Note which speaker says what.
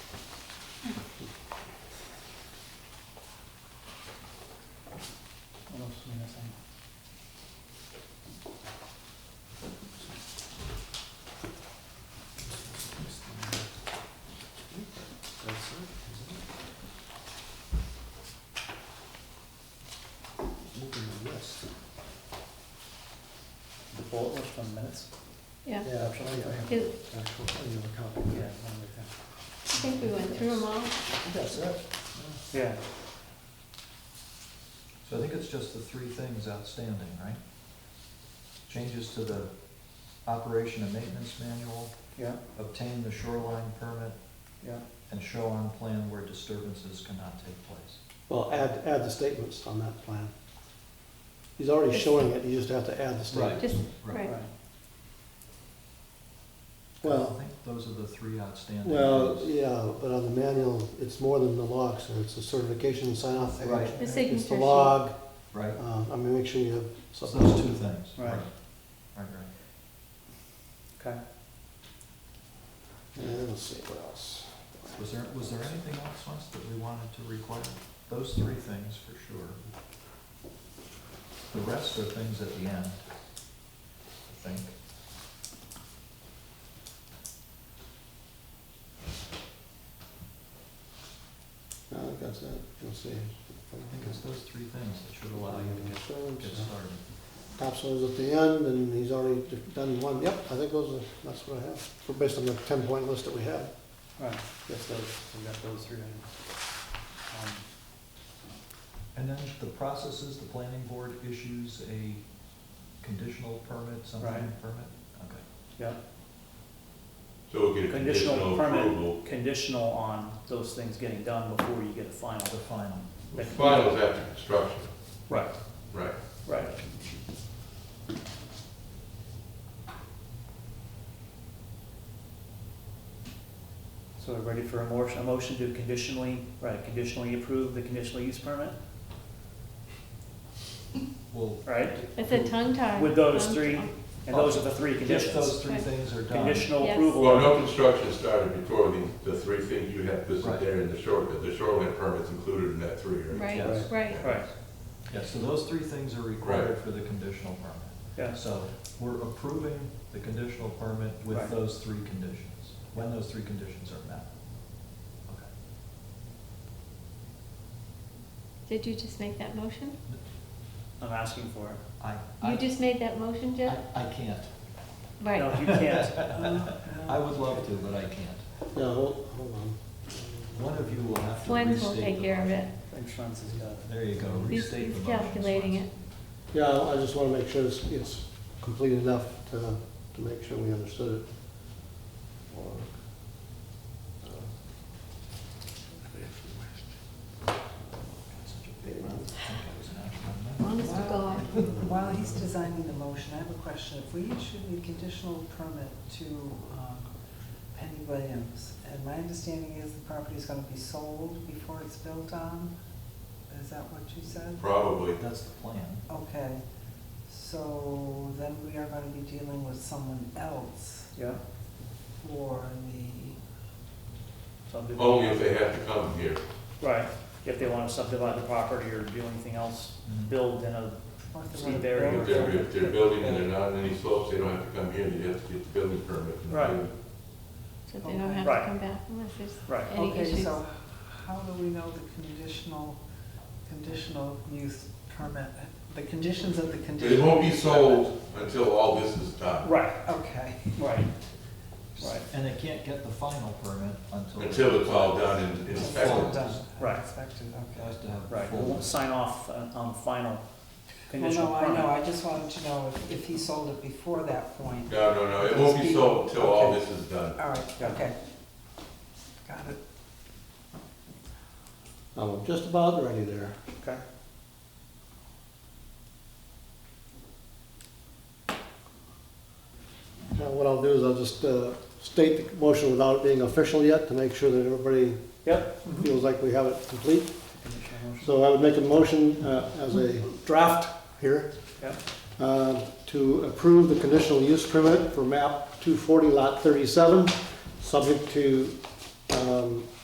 Speaker 1: That's it, isn't it? Moving the list.
Speaker 2: The bullet list on minutes?
Speaker 3: Yeah,
Speaker 1: Yeah, actually, I have,
Speaker 3: Is-
Speaker 1: actually, I have a copy.
Speaker 2: Yeah, one with that.
Speaker 3: I think we went through them all.
Speaker 1: That's it.
Speaker 2: Yeah,
Speaker 4: So I think it's just the three things outstanding, right? Changes to the operation and maintenance manual,
Speaker 2: yeah,
Speaker 4: obtain the shoreline permit,
Speaker 2: yeah.
Speaker 4: and show on plan where disturbances cannot take place.
Speaker 5: Well, add, add the statements on that plan. He's already showing it, you just have to add the statement.
Speaker 3: Just,
Speaker 2: Right.
Speaker 3: right.
Speaker 4: I
Speaker 5: Well,
Speaker 4: think those are the three outstanding.
Speaker 5: well,
Speaker 4: things.
Speaker 5: yeah, but on the manual, it's more than the log, so it's the certification and sign off.
Speaker 4: Right.
Speaker 3: The
Speaker 5: It's the
Speaker 3: signature sheet.
Speaker 5: log,
Speaker 4: Right,
Speaker 5: um, I mean, make sure you have
Speaker 4: so
Speaker 5: something.
Speaker 4: those two things.
Speaker 2: Right.
Speaker 4: Right, right.
Speaker 2: Okay.
Speaker 5: And let's see, what else?
Speaker 4: Was there, was there anything else, Wes, that we wanted to require? Those three things for sure. The rest are things at the end, I think.
Speaker 5: No, I think that's it, you'll see.
Speaker 4: I think it's those three things that should allow you to get, get started.
Speaker 5: Topsoil's at the end, and he's already done one, yep, I think those are, that's what I have, for- based on the ten point list that we had.
Speaker 2: Right, that's those, we got those three items. Um,
Speaker 4: And then the processes, the planning board issues a conditional permit, some kind of permit? Okay,
Speaker 2: Yeah,
Speaker 6: So we'll get a
Speaker 2: Conditional
Speaker 6: conditional
Speaker 2: permit.
Speaker 6: approval.
Speaker 2: Um, conditional on those things getting done before you get a final.
Speaker 4: the final.
Speaker 2: That-
Speaker 6: Final is after construction,
Speaker 2: Right,
Speaker 6: right.
Speaker 2: right. So we're ready for a motion, a motion to conditionally, right, conditionally approve the conditional use permit,
Speaker 4: Well,
Speaker 2: right?
Speaker 3: It's a tongue tie.
Speaker 2: With those
Speaker 3: Tongue
Speaker 2: three
Speaker 3: tie.
Speaker 2: And those are the three
Speaker 4: if
Speaker 2: conditions.
Speaker 4: those three things are done,
Speaker 2: Conditional
Speaker 3: Yes.
Speaker 2: approval.
Speaker 6: Well, no construction started before the, the three things you have listed
Speaker 4: Right.
Speaker 6: there in the shore, the shoreline permit's included in that three, right?
Speaker 3: Right,
Speaker 4: Yes.
Speaker 3: right.
Speaker 2: Right,
Speaker 4: yeah, so those three things are required for the conditional permit.
Speaker 2: yeah,
Speaker 4: So we're approving the conditional permit with
Speaker 2: Right.
Speaker 4: those three conditions, when those three conditions are met. Okay.
Speaker 3: Did you just make that motion?
Speaker 2: I'm asking for it.
Speaker 4: I,
Speaker 3: You
Speaker 4: I,
Speaker 3: just made that motion, Jeff?
Speaker 4: I I can't.
Speaker 2: No,
Speaker 3: Right.
Speaker 2: you can't.
Speaker 4: I would love to, but I can't.
Speaker 5: No, hold, hold on.
Speaker 4: One of you will have to restate
Speaker 3: Swens
Speaker 4: the
Speaker 3: will take care of
Speaker 4: motion.
Speaker 3: it.
Speaker 2: Insurance has got it.
Speaker 4: There you go,
Speaker 3: He's
Speaker 4: restate the
Speaker 3: he's
Speaker 4: motion.
Speaker 3: calculating
Speaker 4: Swanson.
Speaker 3: it.
Speaker 5: Yeah, I I just want to make sure it's, it's complete enough to, to make sure we understood it. Or, uh,
Speaker 4: Got such a big mouth. I think I was an actual member.
Speaker 3: Honest to God.
Speaker 4: uh,
Speaker 7: While he's designing the motion, I have a question. If we issued a conditional permit to um, Penny Williams, and my understanding is the property is gonna be sold before it's built on, is that what you said?
Speaker 6: Probably.
Speaker 4: That's the plan.
Speaker 7: Okay, so then we are gonna be dealing with someone else
Speaker 2: Yeah,
Speaker 7: for the
Speaker 2: subdivision.
Speaker 6: Only if they have to come here.
Speaker 2: Right, if they want to subdivide the property or do anything else,
Speaker 4: Mhm.
Speaker 2: build in a,
Speaker 7: North
Speaker 2: Steve
Speaker 7: River
Speaker 2: Barry.
Speaker 6: If they're, if they're building and they're not on any slopes, they don't have to come here, they have to get the building permit. and
Speaker 2: Right.
Speaker 6: do it.
Speaker 3: So they don't have
Speaker 2: Right.
Speaker 3: to come back unless there's
Speaker 2: Right.
Speaker 3: any
Speaker 7: Okay,
Speaker 3: issues.
Speaker 7: so how do we know the conditional, conditional use permit, the conditions of the
Speaker 6: But it
Speaker 7: conditional?
Speaker 6: won't be
Speaker 7: use
Speaker 6: sold until all this is done,
Speaker 2: right,
Speaker 7: permit? Okay,
Speaker 2: right, right,
Speaker 4: And they can't get the final permit until.
Speaker 6: until it's all done and
Speaker 7: all
Speaker 6: inspected.
Speaker 7: done,
Speaker 2: Right.
Speaker 7: inspected, okay.
Speaker 4: Has to have.
Speaker 2: right. We
Speaker 4: full-
Speaker 2: won't sign off on, on the final
Speaker 7: Well,
Speaker 2: conditional
Speaker 7: no, I know,
Speaker 2: permit.
Speaker 7: I just wanted to know if, if he sold it before that point.
Speaker 6: No, no, no, it won't be sold until all this is done.
Speaker 7: All right,
Speaker 2: Yeah.
Speaker 7: okay. Got it.
Speaker 5: I'm just about ready there.
Speaker 2: Okay,
Speaker 5: Now, what I'll do is I'll just uh, state the motion without it being official yet, to make sure that everybody
Speaker 2: yep.
Speaker 5: feels like we have it complete.
Speaker 2: Conditional motion.
Speaker 5: So I would make a motion uh, as a draft here.
Speaker 2: Yeah.
Speaker 5: uh, To approve the conditional use permit for map 240 lot 37, subject to um,